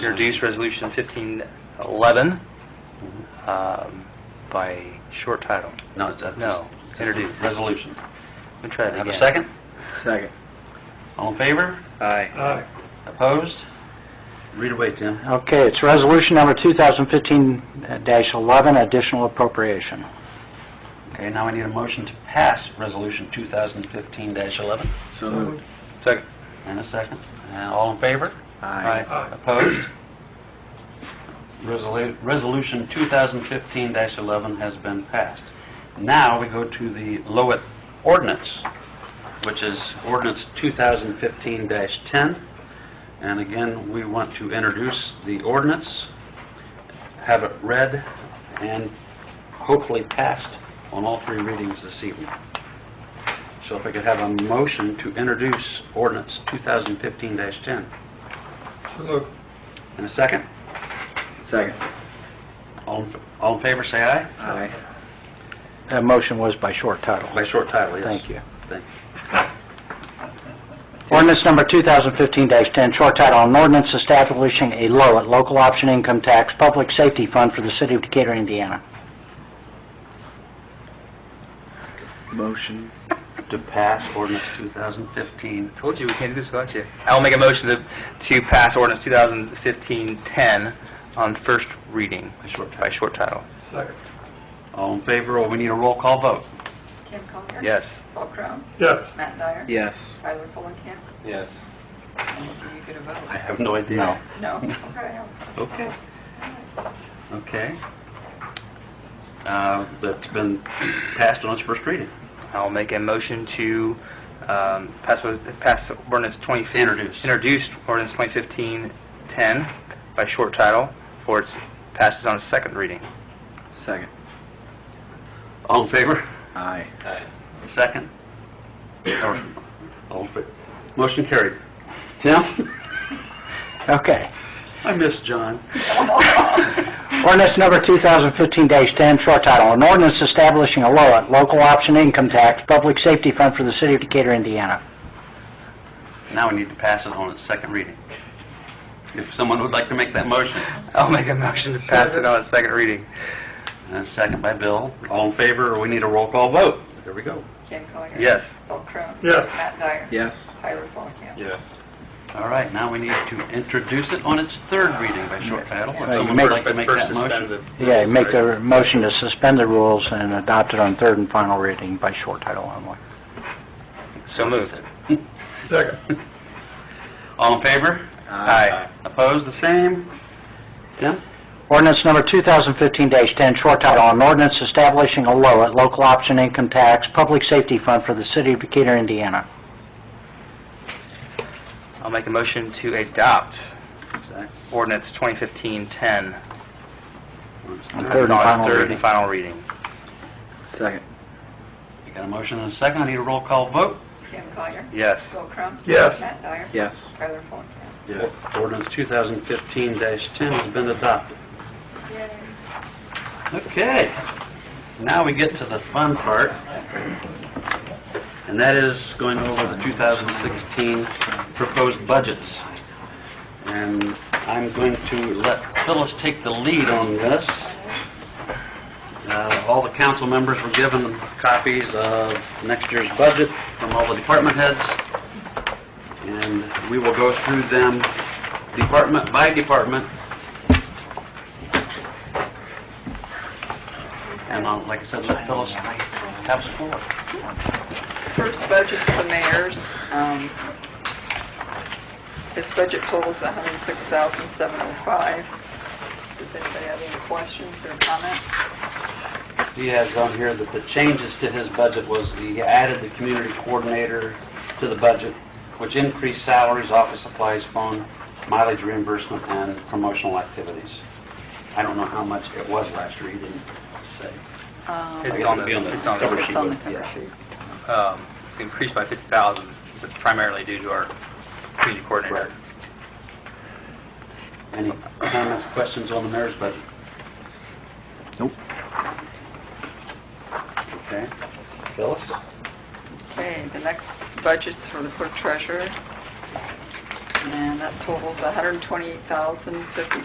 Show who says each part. Speaker 1: introduce Resolution 1511 um, by short title.
Speaker 2: No, that's-
Speaker 1: No, introduce.
Speaker 2: Resolution.
Speaker 1: Let me try that
Speaker 2: Have
Speaker 1: again.
Speaker 2: a second?
Speaker 1: Second.
Speaker 2: All in favor?
Speaker 1: Aye.
Speaker 2: Opposed? Read away, Tim.
Speaker 3: Okay, it's resolution number 2015-11, additional appropriation.
Speaker 2: Okay, now I need a motion to pass Resolution 2015-11.
Speaker 1: So moved. Second.
Speaker 2: And a second. And all in favor?
Speaker 1: Aye. Aye.
Speaker 2: Opposed? Resolu- Resolution 2015-11 has been passed. Now we go to the Lowit ordinance, which is ordinance 2015-10. And again, we want to introduce the ordinance, have it read, and hopefully passed on all three readings this evening. So if I could have a motion to introduce ordinance 2015-10. And a second?
Speaker 1: Second.
Speaker 2: All, all in favor, say aye.
Speaker 1: Aye.
Speaker 3: That motion was by short title.
Speaker 2: By short title, yes.
Speaker 3: Thank you.
Speaker 2: Thank
Speaker 3: Ordinance number 2015-10, short title, an ordinance establishing a low at local option income tax public safety fund for the city of Decatur, Indiana.
Speaker 1: Motion.
Speaker 2: you. To pass ordinance 2015.
Speaker 1: Told you, we can't do this without you. I'll make a motion to, to pass ordinance 2015-10 on first reading. By short title.
Speaker 2: Second. All in favor, or we need a roll call vote?
Speaker 4: Kim Collier.
Speaker 1: Yes.
Speaker 4: Paul Crum.
Speaker 2: Yes.
Speaker 4: Matt Dyer.
Speaker 1: Yes.
Speaker 4: Tyler Fulenkamp.
Speaker 1: Yes.
Speaker 4: And Are you going to
Speaker 2: I
Speaker 4: vote?
Speaker 2: have no idea.
Speaker 4: No? Okay. I'll-
Speaker 2: Okay. Okay. Uh, that's been passed on its first reading.
Speaker 1: I'll make a motion to um, pass or- pass ordinance 2015...
Speaker 2: Introduce.
Speaker 1: Introduce ordinance 2015-10 by short title for its passes on its second reading.
Speaker 2: Second. All in favor?
Speaker 1: Aye.
Speaker 2: Second? Or- all in fa- Motion carried. Tim?
Speaker 3: Okay.
Speaker 2: I miss John.
Speaker 3: Ordinance number 2015-10, short title, an ordinance establishing a low at local option income tax public safety fund for the city of Decatur, Indiana.
Speaker 2: Now we need to pass it on its second reading. If someone would like to make that motion.
Speaker 1: I'll make a motion to pass it on its second reading.
Speaker 2: And a Uh, second by Bill. All in favor, or we need a roll call vote? There we go.
Speaker 4: Kim Collier.
Speaker 1: Yes.
Speaker 4: Paul Crum.
Speaker 2: Yes.
Speaker 4: Matt Dyer.
Speaker 2: Yes.
Speaker 4: Tyler Fulenkamp.
Speaker 2: Yeah. All right, now we need to introduce it on its third reading by short title. If
Speaker 3: Right,
Speaker 2: someone
Speaker 3: make-
Speaker 2: would like to make that motion.
Speaker 3: Yeah, make a motion to suspend the rules and adopt it on third and final reading by short title only.
Speaker 1: So moved.
Speaker 2: Second. All in favor?
Speaker 1: Aye.
Speaker 2: Opposed, the same? Tim?
Speaker 3: Ordinance number 2015-10, short title, an ordinance establishing a low at local option income tax public safety fund for the city of Decatur, Indiana.
Speaker 1: I'll make a motion to adopt uh, ordinance 2015-10
Speaker 3: On
Speaker 1: on
Speaker 3: third and final
Speaker 1: third
Speaker 3: reading.
Speaker 1: and final reading.
Speaker 3: Second.
Speaker 2: You got a motion and a second. I need a roll call vote.
Speaker 4: Kim Collier.
Speaker 1: Yes.
Speaker 4: Paul Crum.
Speaker 2: Yes.
Speaker 4: Matt Dyer.
Speaker 2: Yes.
Speaker 4: Tyler Fulenkamp.
Speaker 2: Ordinance 2015-10 has been adopted.
Speaker 4: Yay.
Speaker 2: Okay, now we get to the fun part, and that is going over the 2016 proposed budgets. And I'm going to let Phyllis take the lead on this. Uh, All the council members were given copies of next year's budget from all the department heads, and we will go through them department by department, and uh, like I said, let Phyllis have some floor.
Speaker 4: First budget for the mayor's, um, his budget totals hundred and six thousand seven oh five. Does anybody have any questions or comments?
Speaker 2: He has on here that the changes to his budget was he added the community coordinator to the budget, which increased salaries, office supplies, phone, mileage reimbursement, and promotional activities. I don't know how much it was last year, he didn't say.
Speaker 4: Um,
Speaker 1: It's
Speaker 2: Like,
Speaker 1: on
Speaker 2: it'll be
Speaker 1: the- it's on the cover
Speaker 4: It's on the
Speaker 2: yeah.
Speaker 4: cover sheet.
Speaker 1: Um, Increased by 50,000, but primarily due to our community coordinator.
Speaker 2: Any comments, questions on the mayor's budget? Nope. Okay. Phyllis?
Speaker 4: Okay, the next budget's for the clerk treasurer. and that totals $128,050.